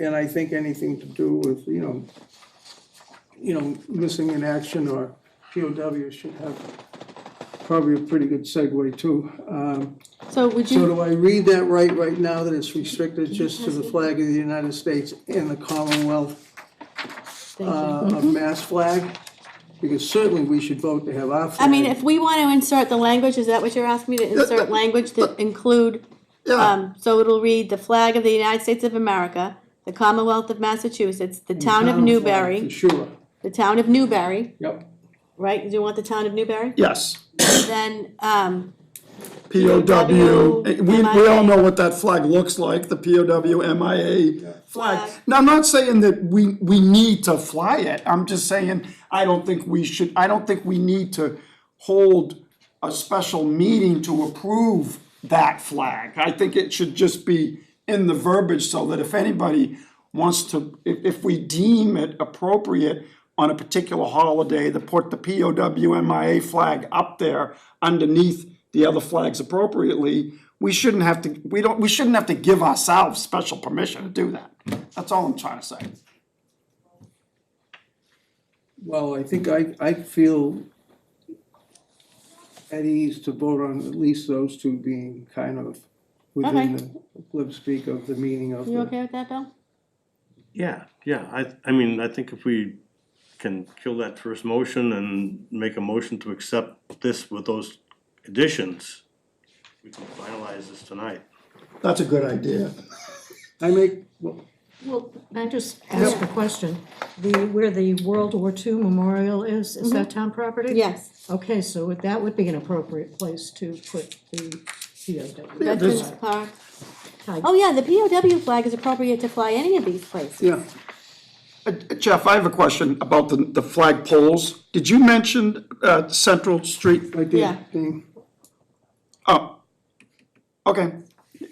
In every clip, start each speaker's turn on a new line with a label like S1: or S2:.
S1: and I think anything to do with, you know, you know, missing in action or POW should have probably a pretty good segue too. Um,
S2: So would
S1: So
S2: you,
S1: do I read that right, right now, that it's restricted just to the flag of the United States and the Commonwealth
S2: thank you.
S1: uh, of Mass flag? Because certainly we should vote to have our flag.
S2: I mean, if we want to insert the language, is that what you're asking me to insert language to include? Um, so it'll read the flag of the United States of America, the Commonwealth of Massachusetts, the town
S1: Town flag,
S2: of
S1: for
S2: Newbury,
S1: Sure,
S2: the town of Newbury,
S1: yep.
S2: right? Do you want the town of Newbury?
S3: Yes,
S2: Then, um,
S3: POW, we, we
S2: MIA.
S3: all know what that flag looks like, the POW MIA flag.
S2: Flag.
S3: Now, I'm not saying that we, we need to fly it, I'm just saying, I don't think we should, I don't think we need to hold a special meeting to approve that flag. I think it should just be in the verbiage so that if anybody wants to, if, if we deem it appropriate on a particular holiday to put the POW MIA flag up there underneath the other flags appropriately, we shouldn't have to, we don't, we shouldn't have to give ourselves special permission to do that. That's all I'm trying to say.
S1: Well, I think I, I feel at ease to vote on at least those two being kind of within the lip speak of the meaning of
S2: you
S1: the.
S2: okay with that, Bill?
S4: Yeah, yeah, I, I mean, I think if we can kill that first motion and make a motion to accept this with those additions, we can finalize this tonight.
S3: That's a good idea.
S1: I make, well,
S5: Well, can I just ask a question? The, where the World War II Memorial is, is that town property?
S2: Mm-hmm. Yes,
S5: Okay, so that would be an appropriate place to put the POW.
S2: Veterans Park. Oh, yeah, the POW flag is appropriate to fly any of these places.
S1: yeah,
S3: Uh, Jeff, I have a question about the, the flag poles. Did you mention, uh, Central Street?
S1: I
S2: Yeah.
S1: did, thing,
S3: Oh, okay,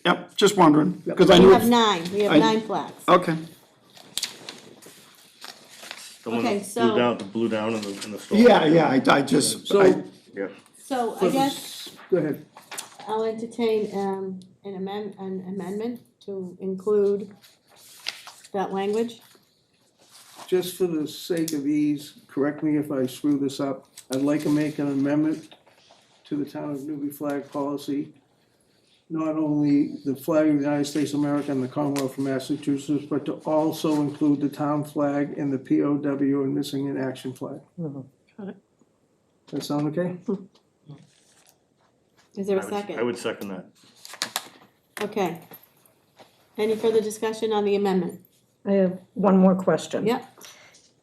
S3: yep, just wondering, because I
S2: We
S3: knew,
S2: have
S3: it-
S2: nine, we have
S3: I-
S2: nine flags.
S3: okay.
S4: The one
S2: Okay,
S4: that
S2: so-
S4: blew down, the blew down in the, in the storm.
S3: Yeah, yeah, I, I just,
S1: so.
S3: I,
S4: Yeah,
S2: So I guess
S1: Go ahead,
S2: I'll entertain um an amend, an amendment to include that language.
S1: just for the sake of ease, correct me if I screw this up, I'd like to make an amendment to the town of Newbury flag policy. Not only the flag of the United States of America and the Commonwealth of Massachusetts, but to also include the town flag and the POW and missing in action flag. That sound okay?
S2: Is there a
S4: I would, I
S2: second?
S4: would second that.
S2: Okay. Any further discussion on the amendment?
S5: I have one more question.
S2: Yep,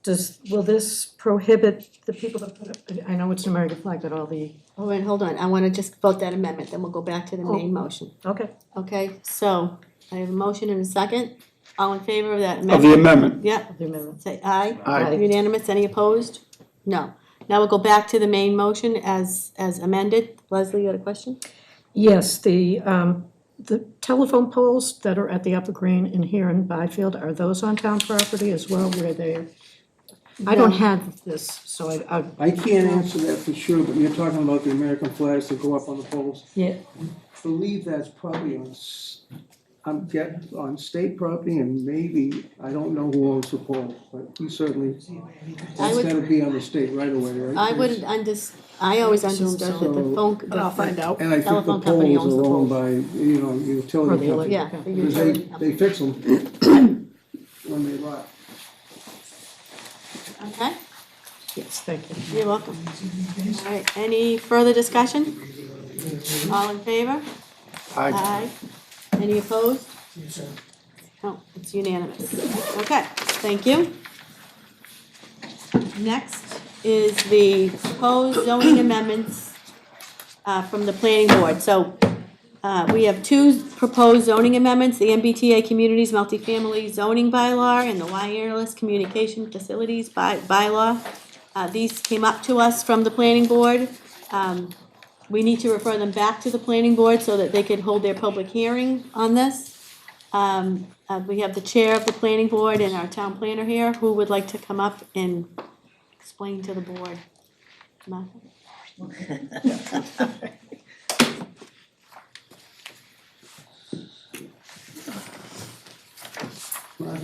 S5: Does, will this prohibit the people that put up, I know it's an American flag, but all the,
S2: all right, hold on, I wanna just vote that amendment, then we'll go back to the main motion.
S5: okay.
S2: Okay, so I have a motion and a second, all in favor of that
S3: of the
S2: amendment?
S3: amendment.
S2: Yep,
S5: the amendment.
S2: say aye.
S3: Aye.
S2: Unanimous, any opposed? No. Now we'll go back to the main motion as as amended. Leslie, you had a question?
S5: Yes, the, um, the telephone poles that are at the Upper Green and here in Byfield, are those on town property as well where they're? I don't have this, so I, I,
S1: I can't answer that for sure, but you're talking about the American flags that go up on the poles.
S5: yeah,
S1: believe that's probably on, s- I'm get, on state property and maybe, I don't know who owns the pole, but we certainly,
S2: I
S1: that's
S2: would-
S1: gotta be on the state right away, right?
S2: I wouldn't under, I always understood that the
S1: so.
S2: phone. the-
S5: I'll find out.
S1: And I think the
S2: Telephone company
S1: poles are owned
S2: owns
S1: by, you know,
S5: Or
S1: utility
S5: the
S1: company.
S2: Yeah. the
S1: Because they,
S2: utility company.
S1: they fix them when they rot.
S2: Okay,
S5: yes, thank you.
S2: you're welcome. All right, any further discussion? All in favor?
S3: I,
S2: Aye. Any opposed? No, it's unanimous. Okay, thank you. Next is the proposed zoning amendments uh, from the planning board. So uh, we have two proposed zoning amendments, the MBTA Communities Multifamily Zoning Bylaw and the Wireless Communication Facilities By Bylaw. Uh, These came up to us from the planning board. Um, We need to refer them back to the planning board so that they could hold their public hearing on this. Um, uh, We have the chair of the planning board and our town planner here who would like to come up and explain to the board. Martha?